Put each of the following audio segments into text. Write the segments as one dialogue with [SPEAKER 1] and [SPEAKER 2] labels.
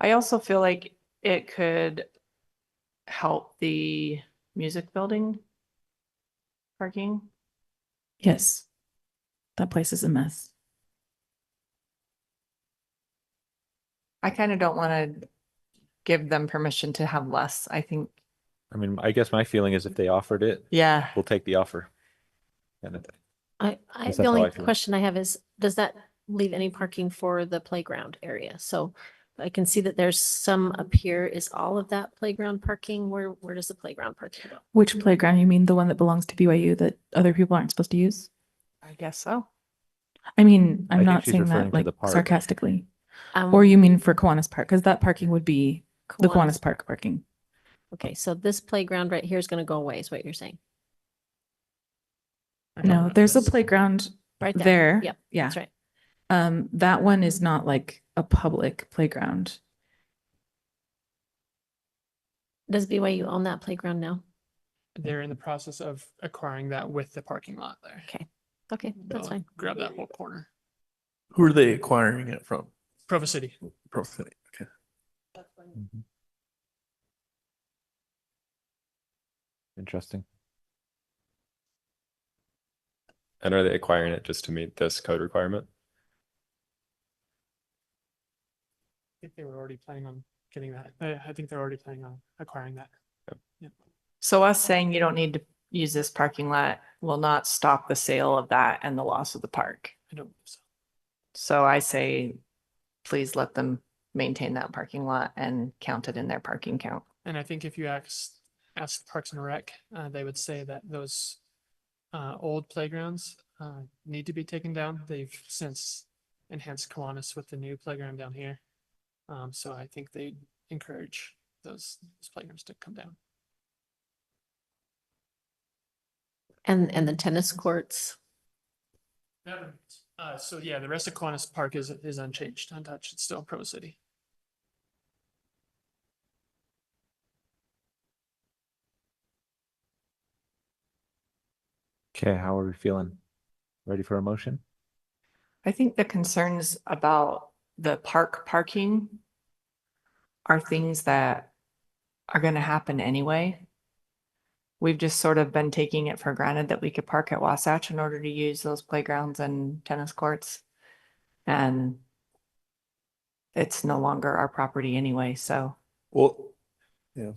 [SPEAKER 1] I also feel like it could help the music building parking.
[SPEAKER 2] Yes. That place is a mess.
[SPEAKER 1] I kind of don't want to give them permission to have less. I think,
[SPEAKER 3] I mean, I guess my feeling is if they offered it,
[SPEAKER 1] yeah,
[SPEAKER 3] we'll take the offer. And it-
[SPEAKER 4] I, I,
[SPEAKER 3] Guess that's
[SPEAKER 4] the
[SPEAKER 3] how I
[SPEAKER 4] only
[SPEAKER 3] feel.
[SPEAKER 4] question I have is, does that leave any parking for the playground area? So I can see that there's some up here. Is all of that playground parking? Where, where does the playground parking go?
[SPEAKER 2] Which playground? You mean the one that belongs to BYU that other people aren't supposed to use?
[SPEAKER 1] I guess so.
[SPEAKER 2] I mean,
[SPEAKER 3] I
[SPEAKER 2] I'm
[SPEAKER 3] think
[SPEAKER 2] not
[SPEAKER 3] she's
[SPEAKER 2] saying
[SPEAKER 3] referring
[SPEAKER 2] that
[SPEAKER 3] to
[SPEAKER 2] like
[SPEAKER 3] the park.
[SPEAKER 2] sarcastically.
[SPEAKER 4] Um,
[SPEAKER 2] Or you mean for Kiwanis Park? Because that parking would be the Kiwanis Park parking.
[SPEAKER 4] Okay, so this playground right here is gonna go away, is what you're saying? I don't
[SPEAKER 2] No,
[SPEAKER 4] know.
[SPEAKER 2] there's a playground
[SPEAKER 4] Right
[SPEAKER 2] there.
[SPEAKER 4] Yep,
[SPEAKER 2] Yeah.
[SPEAKER 4] that's right.
[SPEAKER 2] Um, that one is not like a public playground.
[SPEAKER 4] Does BYU own that playground now?
[SPEAKER 5] They're in the process of acquiring that with the parking lot there.
[SPEAKER 4] Okay, that's
[SPEAKER 5] They'll
[SPEAKER 4] fine.
[SPEAKER 5] Grab that whole corner.
[SPEAKER 6] Who are they acquiring it from?
[SPEAKER 5] Provo City.
[SPEAKER 6] Pro City. Okay.
[SPEAKER 3] Mm-hmm. Interesting.
[SPEAKER 7] And are they acquiring it just to meet this code requirement?
[SPEAKER 5] I think they were already planning on getting that. I, I think they're already planning on acquiring that. Yep.
[SPEAKER 1] So us saying you don't need to use this parking lot will not stop the sale of that and the loss of the park.
[SPEAKER 5] I don't, believe so.
[SPEAKER 1] So I say, please let them maintain that parking lot and count it in their parking count.
[SPEAKER 5] and I think if you ask, ask Parks and Rec, uh, they would say that those uh, old playgrounds uh, need to be taken down. They've since enhanced Kiwanis with the new playground down here. Um, so I think they encourage those, those playgrounds to come down.
[SPEAKER 4] And, and the tennis courts,
[SPEAKER 5] That remains. Uh, so yeah, the rest of Kiwanis Park is, is unchanged, untouched. It's still Provo City.
[SPEAKER 3] Okay, how are we feeling? Ready for a motion?
[SPEAKER 1] I think the concerns about the park parking are things that are going to happen anyway. We've just sort of been taking it for granted that we could park at Wasatch in order to use those playgrounds and tennis courts. And it's no longer our property anyway, so
[SPEAKER 6] Well, yeah.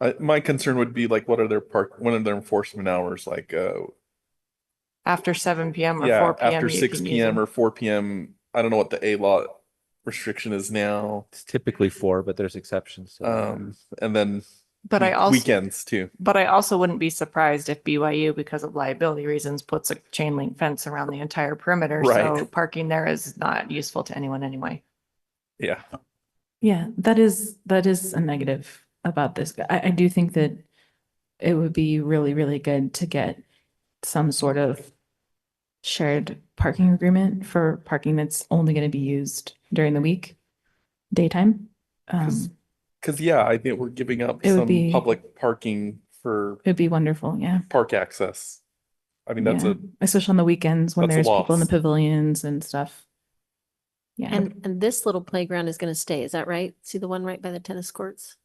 [SPEAKER 6] I, my concern would be like, what are their park, what are their enforcement hours? Like, uh,
[SPEAKER 1] after seven PM or
[SPEAKER 6] yeah,
[SPEAKER 1] four PM.
[SPEAKER 6] after
[SPEAKER 1] you
[SPEAKER 6] six
[SPEAKER 1] can use
[SPEAKER 6] PM
[SPEAKER 1] them.
[SPEAKER 6] or four PM. I don't know what the A lot restriction is now.
[SPEAKER 3] It's typically four, but there's exceptions. to that.
[SPEAKER 6] Um, and then
[SPEAKER 1] But I
[SPEAKER 6] week-
[SPEAKER 1] also.
[SPEAKER 6] Weekends too.
[SPEAKER 1] But I also wouldn't be surprised if BYU, because of liability reasons, puts a chain link fence around the entire perimeter.
[SPEAKER 6] Right.
[SPEAKER 1] So parking there is not useful to anyone anyway.
[SPEAKER 6] Yeah.
[SPEAKER 2] Yeah, that is, that is a negative about this. I, I do think that it would be really, really good to get some sort of shared parking agreement for parking that's only going to be used during the week, daytime. Um,
[SPEAKER 6] 'Cause- Cause yeah, I think we're giving up
[SPEAKER 2] It would
[SPEAKER 6] some
[SPEAKER 2] be-
[SPEAKER 6] public parking for
[SPEAKER 2] it'd be wonderful, yeah.
[SPEAKER 6] park access. I mean, that's
[SPEAKER 2] Yeah.
[SPEAKER 6] a,
[SPEAKER 2] Especially on the weekends when
[SPEAKER 6] that's
[SPEAKER 2] there's
[SPEAKER 6] a
[SPEAKER 2] people in the
[SPEAKER 6] loss.
[SPEAKER 2] pavilions and stuff. Yeah.
[SPEAKER 4] and, and this little playground is gonna stay, is that right? See the one right by the tennis courts?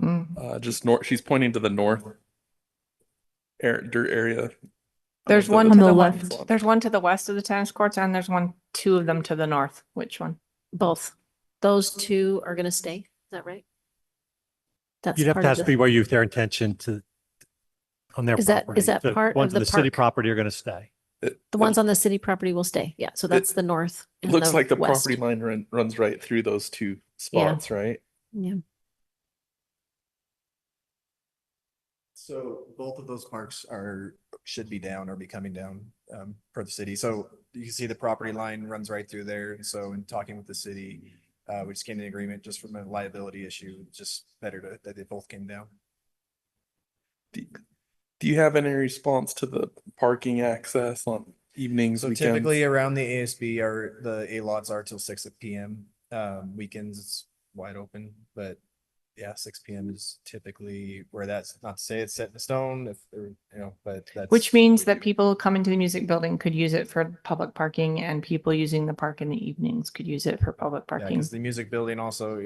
[SPEAKER 1] Mm.
[SPEAKER 6] uh, just north, she's pointing to the north air, dirt area.
[SPEAKER 1] There's
[SPEAKER 6] of the-
[SPEAKER 1] one to
[SPEAKER 2] the
[SPEAKER 1] the
[SPEAKER 2] left.
[SPEAKER 1] left, there's one to the west of the tennis courts and there's one, two of them to the north. Which one?
[SPEAKER 4] Both. Those two are gonna stay, is that right? That's
[SPEAKER 8] You'd have
[SPEAKER 4] part
[SPEAKER 8] to
[SPEAKER 4] of
[SPEAKER 8] ask
[SPEAKER 4] the-
[SPEAKER 8] BYU if their intention to, on their
[SPEAKER 4] Is that- is
[SPEAKER 8] property.
[SPEAKER 4] that
[SPEAKER 8] The
[SPEAKER 4] part of
[SPEAKER 8] ones on
[SPEAKER 4] the
[SPEAKER 8] The city
[SPEAKER 4] park?
[SPEAKER 8] property are going to stay.
[SPEAKER 6] It-
[SPEAKER 4] The
[SPEAKER 6] it-
[SPEAKER 4] ones on the city property will stay, yeah, so that's the north.
[SPEAKER 6] It
[SPEAKER 4] and
[SPEAKER 6] looks like the
[SPEAKER 4] west.
[SPEAKER 6] property line run, runs right through those two
[SPEAKER 4] Yeah.
[SPEAKER 6] spots, right?
[SPEAKER 4] Yeah,
[SPEAKER 9] So both of those parks are, should be down or be coming down um per the city. So you can see the property line runs right through there. And so in talking with the city, uh, we just came to an agreement just from a liability issue, just better to, that they both came down.
[SPEAKER 6] Do, do you have any response to the parking access on evenings,
[SPEAKER 9] So
[SPEAKER 6] weekends?
[SPEAKER 9] typically around the ASB are, the A lots are till six PM. Um, weekends it's wide open, but yeah, six PM is typically where that's not to say it's set in stone if, there- you know, but that's.
[SPEAKER 1] Which means
[SPEAKER 9] we
[SPEAKER 1] that
[SPEAKER 9] do.
[SPEAKER 1] people coming to the music building could use it for public parking and people using the park in the evenings could use it for public
[SPEAKER 9] Yeah,
[SPEAKER 1] parking.
[SPEAKER 9] because the music building also,